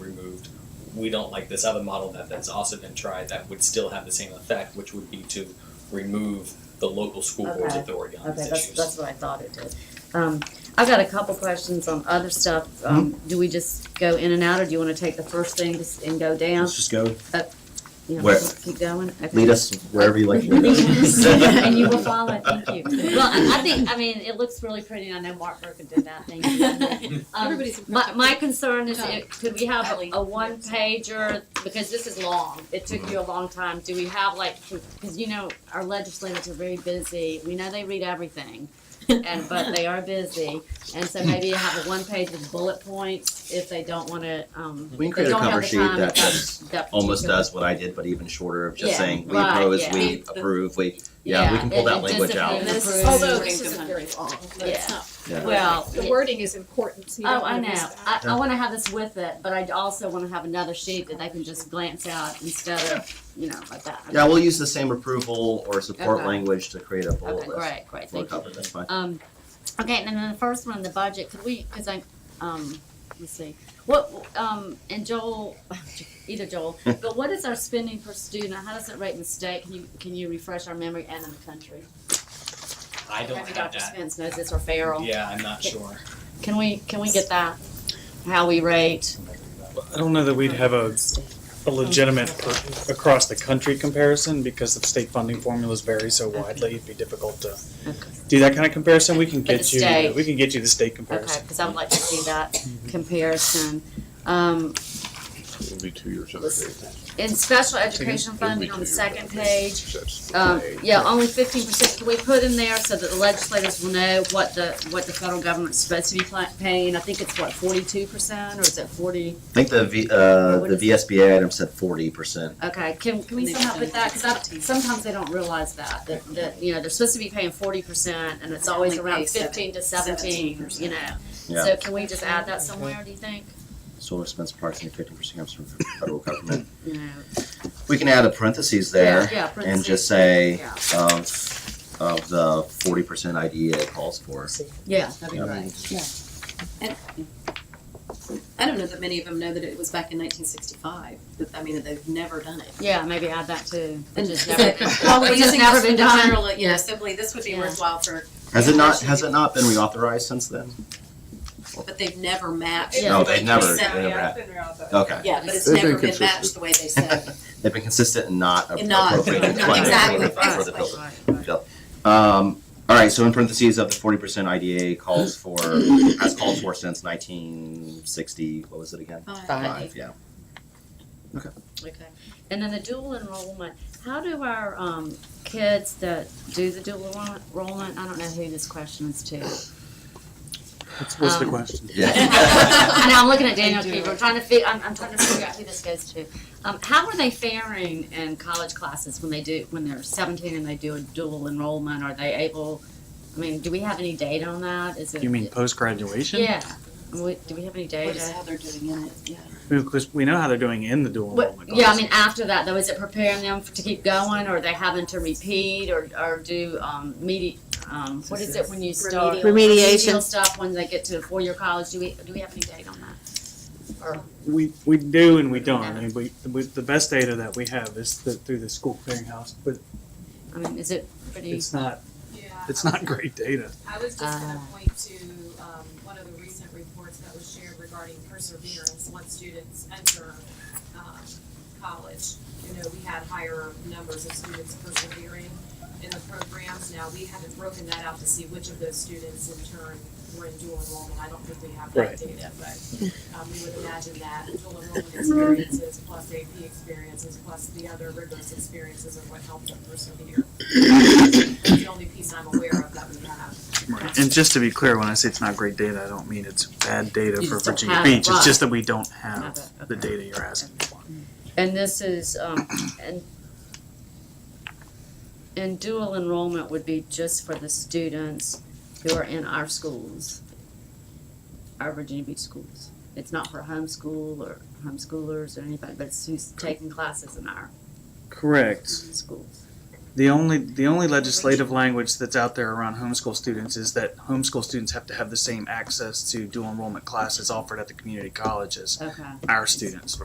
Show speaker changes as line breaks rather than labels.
we don't like this other model that that's also been tried that would still have the same effect, which would be to remove the local school board's
Okay.
authority on
Okay,
these
that's,
issues.
that's what I thought it did. Um, I've got a couple questions on other stuff. Um,
Hmm?
do we just go in and out, or do you wanna take the first thing just- and go down?
Let's just go.
You know,
Where-
just keep going? Okay.
Lead us wherever you like. to lead us.
Yes, And you will follow, thank you. Well, I I think, I mean, it looks really pretty, and I know Mark Broker did that, thank you. Um,
Everybody's
My, my concern is, it- could we have
Ellie.
a- a one pager, because this is long, it took you a long time, do we have like, because you know, our legislators are very busy, we know they read everything, and, but they are busy, and so maybe have a one page with bullet points if they don't wanna, um,
We can
they
create a
don't have
cover
the
sheet
time.
that
to cover
that's
that
almost
particular-
does what I did, but even shorter of just
Yeah,
saying, we
right,
oppose,
yeah.
we approve, we, yeah, we can pull
Yeah, it-
that
it
language out.
disappears.
This is,
Approved.
although this isn't very long, but
Yeah.
it's not.
Yeah.
Well,
The
yeah.
wording is important, so you don't
Oh, I
wanna miss
know.
that.
I, I wanna have this with it, but I also wanna have another sheet that they can just glance at instead of, you know, like that.
Yeah, we'll use the same approval or support
Okay.
language to create a bullet
Okay,
list.
great, great, thank
We'll
you.
cover that's fine.
Um, okay, and then the first one, the budget, could we, cause I, um, let's see, what, um, and Joel, either Joel, but what is our spending per student, how does it rate in the state, can you, can you refresh our memory and in the country?
I don't
Maybe
have
Dr.
that.
Spence knows this, or Farrell,
Yeah, I'm not sure.
can we, can we get that, how we rate?
I don't know that we'd have a, a legitimate per- across the country comparison because the state funding formulas vary so widely. It'd be difficult to
Okay.
do that kind of comparison. We can
But the
get you,
state-
we can get you the state
Okay,
comparison.
because I would like to see that comparison. Um,
It'll be two years out of
Let's-
date. It'll
in special
Second.
education
be
funding on
two
the
years out of
second
date.
page,
That's-
um, yeah, only fifteen percent, can we put in there so that the legislators will know what the, what the federal government's supposed to be pla- paying? I think it's what, forty-two percent, or is it forty?
I think the V, uh,
What
the
is-
VSBA item said forty percent.
Okay, can, can we somehow put that, because sometimes they don't realize that, that, that, you know, they're supposed to be paying forty percent, and it's always
Only
around
pay seven-
fifteen to seventeen, you know?
Yeah.
So can we just add that somewhere, do you think?
Solar expense approximately fifty percent comes from the federal government.
You know,
We can add a parentheses there
yeah,
and
parentheses.
just say
Yeah.
of, of the forty percent idea it calls for.
Yeah, that'd be
Yeah.
great.
I don't know that many of them know that it was back in nineteen sixty-five, but I mean, that they've never done it.
Yeah, maybe add that too.
And
Which has
just-
never been-
Well, we're
which has
using
never
this
been
for
done.
general, you know, simply, this would be
Yeah.
worthwhile for,
Has it not, has it not been reauthorized since then?
but they've never matched.
No,
what
they never-
said.
they never have. Okay.
Yeah, but it's
They've
never
been
been
consistent.
matched the way they said.
They've been consistent and not
And not-
appropriating
not-
funding for
exactly.
the, for the building.
Right, right.
Um, all right, so in parentheses of the forty percent IDA calls for, has called for since nineteen sixty, what was it again? Five, yeah.
Okay. And then the dual enrollment, how do our, um, kids that do the dual enroll- enrollment, I don't know who this question is to.
What's, what's the
Um,
question?
I know, I'm looking at Daniel
They do
Keeper, I'm
it.
trying to fi, I'm, I'm trying to figure out who this goes to. Um, how are they faring in college classes when they do, when they're seventeen and they do a dual enrollment? Are they able, I mean, do we have any data on that? Is it?
You mean post-graduation?
Yeah, We- do we have any
What
data?
is how they're doing in it, yeah.
Because we know how they're doing in the dual
Oh
What,
enrollment.
yeah, I
classes.
mean, after that though, is it preparing them to keep going, or they having to repeat, or, or do, um, medi- um, what is it when you start?
Remedial.
Remediation.
Remedial stuff when they get to four-year college, do we, do we have any data on that? Or,
We, we do and we don't. I mean, we, we, the best data that we have is the, through the school clearinghouse, but
I mean, is it pretty,
it's not,
Yeah,
it's not great data.
I was just gonna
Uh.
point to, um, one of the recent reports that was shared regarding perseverance once students enter, um, college. You know, we had higher numbers of students persevering in the programs. Now, we haven't broken that out to see which of those students in turn were in dual enrollment. I don't think we have
Right.
that data, but, um, we would imagine that dual enrollment experiences plus AP experiences plus the other rigorous experiences are what helped them persevere. That's the only piece I'm aware of that we have.
And just to be clear, when I say it's not great data, I don't mean it's bad data
You
for
just don't
Virginia
have it,
Beach. It's just
right.
that we don't
Have
have
it,
the
okay.
data you're asking for.
and this is, um, and, and dual enrollment would be just for the students who are in our schools, our Virginia Beach schools. It's not for homeschool or homeschoolers or anybody, but it's who's taking classes in our
Correct.
schools.
The only, the only legislative language that's out there around homeschool students is that homeschool students have to have the same access to dual enrollment classes offered at the community colleges.
Okay.
Our students